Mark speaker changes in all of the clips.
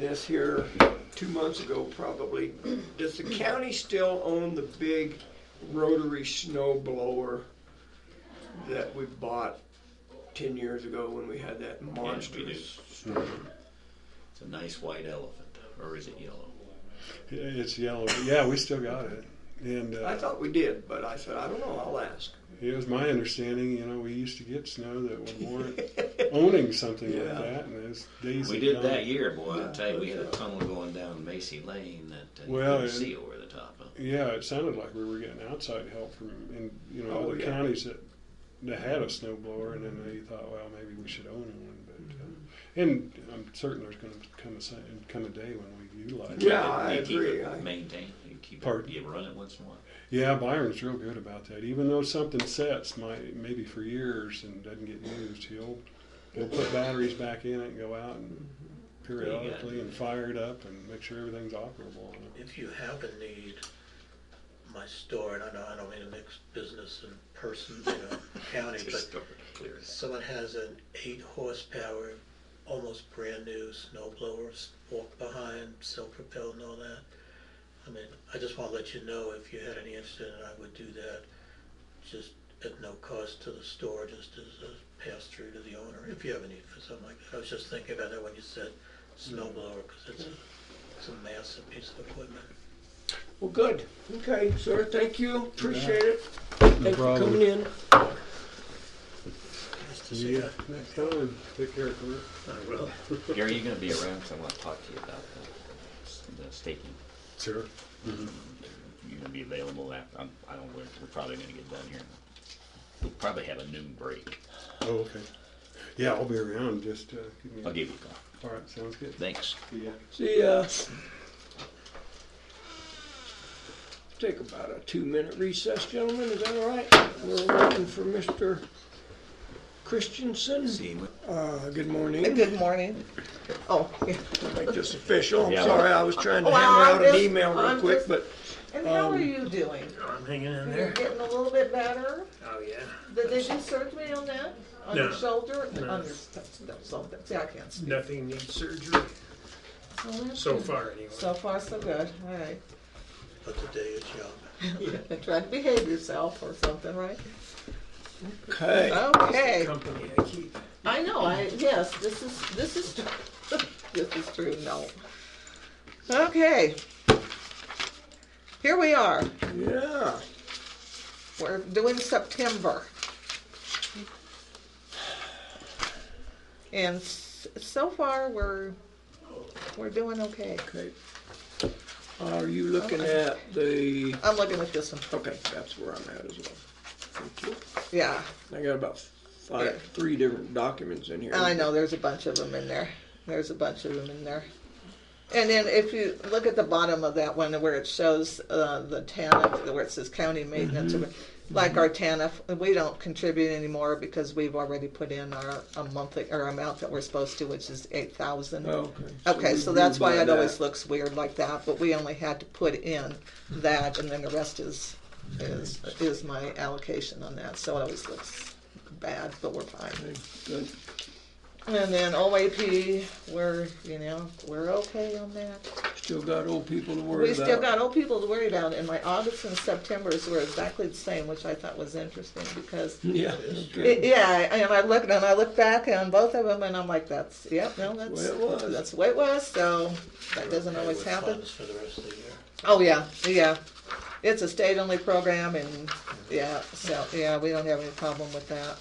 Speaker 1: this here two months ago probably. Does the county still own the big rotary snow blower that we bought ten years ago when we had that monster?
Speaker 2: do.
Speaker 1: storm?
Speaker 2: It's a nice white elephant, or is it yellow?
Speaker 3: Yeah, It's yellow. But yeah, we still got it. And
Speaker 1: I
Speaker 3: uh,
Speaker 1: thought we did, but I said, I don't know, I'll ask.
Speaker 3: it was my understanding, you know, we used to get snow that would warrant owning something
Speaker 1: Yeah.
Speaker 3: like that. And those days
Speaker 2: We
Speaker 3: are
Speaker 2: did
Speaker 3: gone.
Speaker 2: that year, boy. I'll tell you, we had a
Speaker 1: Yeah.
Speaker 2: tunnel going down Macy Lane that uh, you
Speaker 3: Well,
Speaker 2: couldn't
Speaker 3: and-
Speaker 2: see over the top of.
Speaker 3: Yeah, it sounded like we were getting outside help from in you know
Speaker 1: Oh,
Speaker 3: other
Speaker 1: yeah.
Speaker 3: counties that that had a snow blower, and then they thought, well, maybe we should own one. But
Speaker 1: Mm-hmm.
Speaker 3: uh, and I'm certain there's going to come a sa- come a day when we utilize it.
Speaker 1: Yeah, I
Speaker 2: you keep
Speaker 1: agree.
Speaker 2: It
Speaker 1: I-
Speaker 2: maintained. You keep
Speaker 3: Pardon?
Speaker 2: it. You run it once more.
Speaker 3: Yeah, Byron's real good about that. Even though something sets might maybe for years and doesn't get used, he'll he'll put batteries back in it and go out and Mm-hmm. periodically and fire it up and make sure everything's operable on it.
Speaker 4: If you have a need, my store, and I know I don't mean to mix business and person, you know, county,
Speaker 2: Just
Speaker 4: but
Speaker 2: start to clear it.
Speaker 4: someone has an eight horsepower, almost brand new snow blower, s- walk behind, self-propelled and all that. I mean, I just wanna let you know if you had any interest in it, I would do that, just at no cost to the store, just as a pass-through to the owner, if you have a need for something like that. I was just thinking about that when you said snow blower, cause it's a, it's a massive piece of equipment.
Speaker 1: Well, good. Okay, sir, thank you. Appreciate it. Thanks for
Speaker 3: problem.
Speaker 1: coming in.
Speaker 3: See ya next time. Take care, Kurt.
Speaker 2: Gary, you going to be around? 'Cause I want to talk to you about the, the staking.
Speaker 3: Sure.
Speaker 2: You're going to be available after. I'm, I don't. We're, we're probably going to get done here. We'll probably have a noon break.
Speaker 3: Oh, okay. Yeah, I'll be around. Just uh, give me. a-
Speaker 2: I'll give you a call.
Speaker 3: All right, sounds good.
Speaker 2: Thanks.
Speaker 3: See ya.
Speaker 1: See ya. Take about a two-minute recess, gentlemen, is that all right? We're waiting for Mr. Christensen.
Speaker 2: See you.
Speaker 1: Uh, good morning.
Speaker 5: Good morning. Oh, yeah.
Speaker 1: Make this official. I'm
Speaker 2: Yeah.
Speaker 1: sorry, I was trying to
Speaker 5: Well,
Speaker 1: hammer out an
Speaker 5: I'm just-
Speaker 1: email real
Speaker 5: I'm
Speaker 1: quick,
Speaker 5: just-
Speaker 1: but
Speaker 5: and how are you doing?
Speaker 4: Oh, I'm hanging in
Speaker 5: You're getting a little bit better?
Speaker 4: Oh, yeah.
Speaker 5: Did they do surgery on that? On your
Speaker 4: No.
Speaker 5: shoulder?
Speaker 4: No.
Speaker 5: On your, no, something, see, I can't speak.
Speaker 4: Nothing needs surgery,
Speaker 5: So that's
Speaker 4: so
Speaker 5: good.
Speaker 4: far anyway.
Speaker 5: So far, so good, all right.
Speaker 4: But the day is young.
Speaker 5: And try to behave yourself or something, right?
Speaker 1: okay.
Speaker 5: Okay,
Speaker 4: Company I keep.
Speaker 5: I know, I, yes, this is, this is, tr- this is true, no. Okay. Here we are,
Speaker 1: Yeah.
Speaker 5: we're doing September. And s- so far, we're, we're doing okay.
Speaker 1: Okay. Are you looking at the,
Speaker 5: I'm looking at this one.
Speaker 1: okay, that's where I'm at as well. Thank you.
Speaker 5: Yeah,
Speaker 1: I got about five, three different documents in here.
Speaker 5: I know, there's a bunch of them in there. There's a bunch of them in there. And then if you look at the bottom of that one where it shows uh, the TANF, where it says county maintenance, like our TANF, we don't contribute anymore because we've already put in our a monthly, or amount that we're supposed to, which is eight thousand.
Speaker 1: Okay.
Speaker 5: Okay,
Speaker 1: we
Speaker 5: so that's
Speaker 1: grew by
Speaker 5: why it always
Speaker 1: that.
Speaker 5: looks weird like that, but we only had to put in that, and then the rest is, is, is my allocation on that, so it always looks bad, but we're fine.
Speaker 1: Okay, Good.
Speaker 5: And then OAP, we're, you know, we're okay on that.
Speaker 1: Still got old people to worry
Speaker 5: We
Speaker 1: about.
Speaker 5: still got old people to worry about, and my August and September's were exactly the same, which I thought was interesting, because
Speaker 1: Yeah.
Speaker 5: Y-
Speaker 1: Okay.
Speaker 5: Yeah, I- and I looked and I look back on both of them, and I'm like, "That's yep, no, that's
Speaker 1: way it was.
Speaker 5: that's the way it was." So that doesn't always
Speaker 4: With
Speaker 5: happen.
Speaker 4: funds For the rest of the year.
Speaker 5: Oh yeah, yeah, it's a state-only program, and yeah, so yeah, we don't have any problem with that.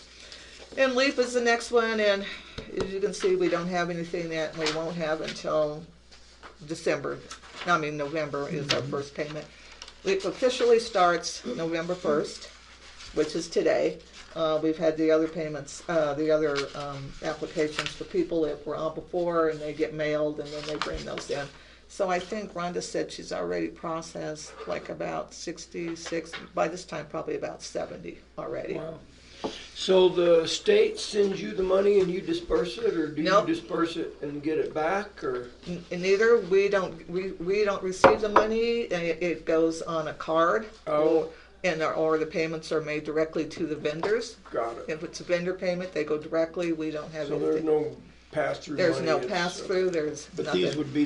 Speaker 5: And LEAP is the next one, and as you can see, we don't have anything that we won't have until December. I mean, November is our first payment. LEAP officially starts November first which is today. Uh, we've had the other payments, uh, the other, um, applications for people that were on before and they get mailed and then they bring those in. So I think Rhonda said she's already processed like about sixty-six, by this time probably about seventy already.
Speaker 1: Wow. So the state sends you the money and you disperse it, or do you
Speaker 5: Nope.
Speaker 1: disperse it and get it back, or?
Speaker 5: N- And neither, we don't, we, we don't receive the money, and it, it goes on a card.
Speaker 1: Oh.
Speaker 5: And, or- or the payments are made directly to the vendors.
Speaker 1: Got it.
Speaker 5: If it's a vendor payment, they go directly, we don't have
Speaker 1: So
Speaker 5: anything.
Speaker 1: there's no pass-through money?
Speaker 5: There's no
Speaker 1: it's- uh,
Speaker 5: pass-through, there's
Speaker 1: But these
Speaker 5: nothing.
Speaker 1: would be